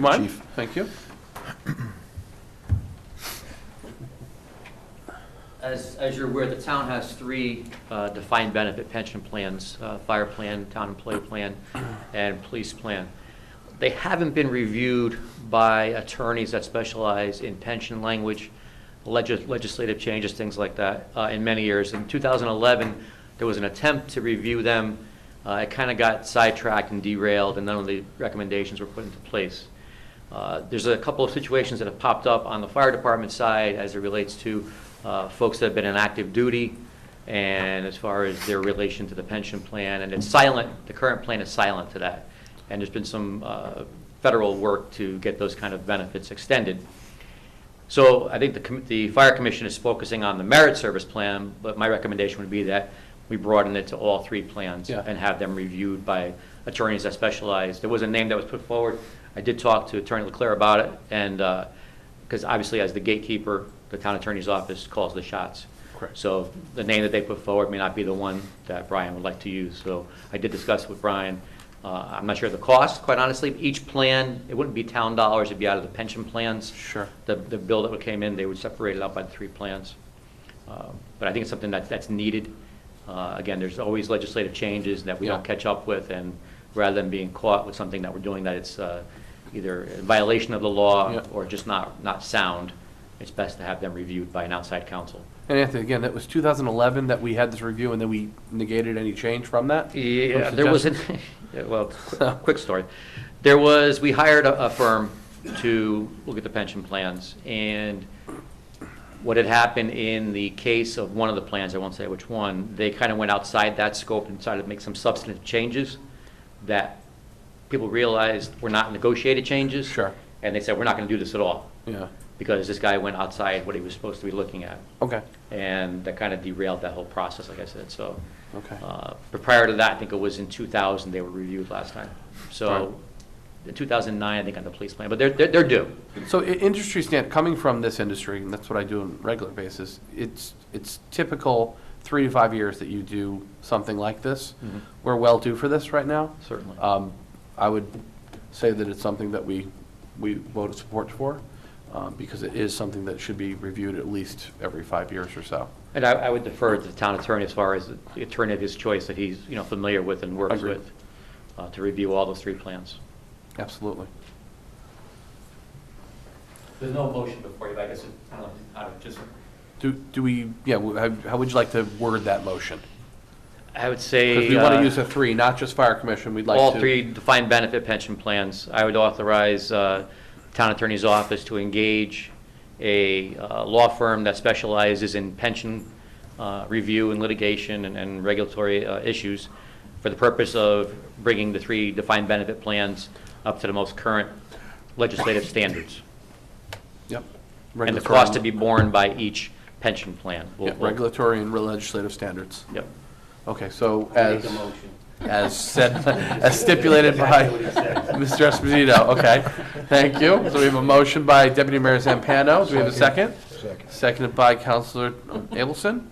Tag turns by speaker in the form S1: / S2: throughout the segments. S1: you mind?
S2: Chief.
S1: Thank you.
S3: As, as you're aware, the town has three uh, defined benefit pension plans, uh, fire plan, town employee plan, and police plan. They haven't been reviewed by attorneys that specialize in pension language, legis- legislative changes, things like that, uh, in many years. In 2011, there was an attempt to review them. Uh, It kind of got sidetracked and derailed, and none of the recommendations were put into place. Uh, There's a couple of situations that have popped up on the fire department side as it relates to uh, folks that have been in active duty and as far as their relation to the pension plan, and it's silent, the current plan is silent to that. And there's been some uh, federal work to get those kind of benefits extended. So I think the, com- the fire commission is focusing on the merit service plan, but my recommendation would be that we broaden it to all three plans
S1: Yeah.
S3: and have them reviewed by attorneys that specialize. There was a name that was put forward. I did talk to Attorney Leclerc about it, and, because obviously as the gatekeeper, the town attorney's office calls the shots.
S1: Correct.
S3: So the name that they put forward may not be the one that Brian would like to use. So I did discuss with Brian, uh, I'm not sure of the cost, quite honestly. Each plan, it wouldn't be town dollars, it'd be out of the pension plans
S1: Sure.
S3: the, the bill that came in, they would separate it out by the three plans. Um, But I think it's something that, that's needed. Uh, Again, there's always legislative changes that we don't
S1: Yeah.
S3: catch up with, and rather than being caught with something that we're doing that it's uh, either in violation of the law
S1: Yeah.
S3: or just not, not sound, it's best to have them reviewed by an outside counsel.
S1: And Anthony, again, that was 2011 that we had this review, and then we negated any change from that?
S3: Yeah,
S1: Or
S3: there was, an
S1: suggestion?
S3: yeah, well, qu- uh, quick story. There was, we hired a a firm to look at the pension plans, and what had happened in the case of one of the plans, I won't say which one, they kind of went outside that scope and decided to make some substantive changes that people realized were not negotiated changes.
S1: Sure.
S3: And they said, we're not going to do this at all,
S1: Yeah,
S3: because this guy went outside what he was supposed to be looking at.
S1: okay,
S3: And that kind of derailed that whole process, like I said, so.
S1: okay.
S3: Uh, But prior to that, I think it was in 2000, they were reviewed last time.
S1: Right.
S3: So, in 2009, I think, on the police plan, but they're, they're they're due.
S1: So i- industry stand, coming from this industry, and that's what I do on a regular basis, it's, it's typical three to five years that you do something like this.
S3: Mhm.
S1: We're well due for this right now.
S3: Certainly.
S1: Um, I would say that it's something that we, we voted support for, um, because it is something that should be reviewed at least every five years or so.
S3: And I, I would defer to the town attorney as far as the attorney of his choice that he's, you know, familiar with and works
S1: Agreed.
S3: with, uh, to review all those three plans.
S1: Absolutely.
S3: There's no motion before you, but I guess, I don't know, just.
S1: Do, do we, yeah, wh- how how would you like to word that motion?
S3: I would say.
S1: Because we want
S3: uh,
S1: to use a three, not just fire commission, we'd like to.
S3: All three defined benefit pension plans. I would authorize uh, town attorney's office to engage a uh, law firm that specializes in pension uh, review and litigation and- and regulatory uh, issues for the purpose of bringing the three defined benefit plans up to the most current legislative standards.
S1: Yep.
S3: And the
S1: Regulatory
S3: cost to be borne by each pension plan. We'll-
S1: Yeah, regulatory and legislative standards.
S3: Yep.
S1: Okay, so
S4: Make
S1: as,
S4: a motion.
S1: as said, as stipulated by
S4: Exactly what he said.
S1: Mr. Esposito, okay. Thank you. So we have a motion by Deputy Mayor Zampano. Do we have a second?
S5: Second.
S1: Seconded by Counselor Abelson.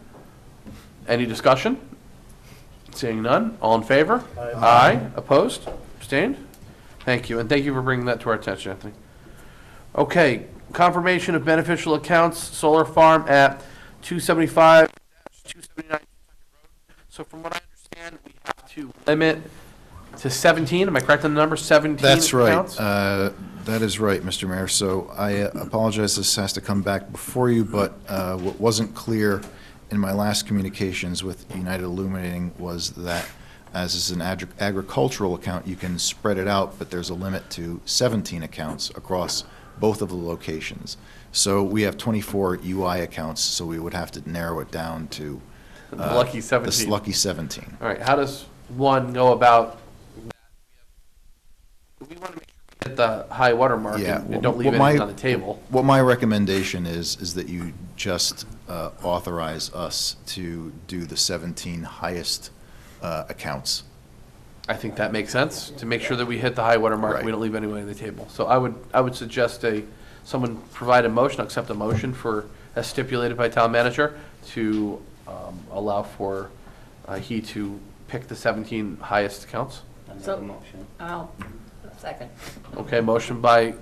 S1: Any discussion? Seeing none. All in favor? Aye. Opposed? Abstained? Thank you, and thank you for bringing that to our attention, Anthony. Okay, confirmation of beneficial accounts, solar farm at 275, 279 So from what I understand, we have to limit to 17, am I correct on the number, 17
S5: That's right.
S1: accounts?
S5: Uh, That is right, Mr. Mayor. So I uh, apologize, this has to come back before you, but uh, what wasn't clear in my last communications with United Illuminating was that as is an agri- agricultural account, you can spread it out, but there's a limit to 17 accounts across both of the locations. So we have 24 UI accounts, so we would have to narrow it down to
S1: The
S5: uh,
S1: Lucky
S5: this
S1: 17. All
S5: lucky 17.
S1: right, how does one go about? We want to make sure we hit the high water mark
S5: Yeah,
S1: and and don't leave
S5: what my-
S1: anything on the table.
S5: What my recommendation is, is that you just uh, authorize us to do the 17 highest uh, accounts.
S1: I think that makes sense, to make sure that we hit the high water mark, and we
S5: Right.
S1: don't leave anyone on the table. So I would, I would suggest a, someone provide a motion, accept a motion for, as stipulated by town manager, to um, allow for uh, he to pick the 17 highest accounts.
S4: I make a
S6: So-
S4: motion.
S6: I'll, second.
S1: Okay, motion by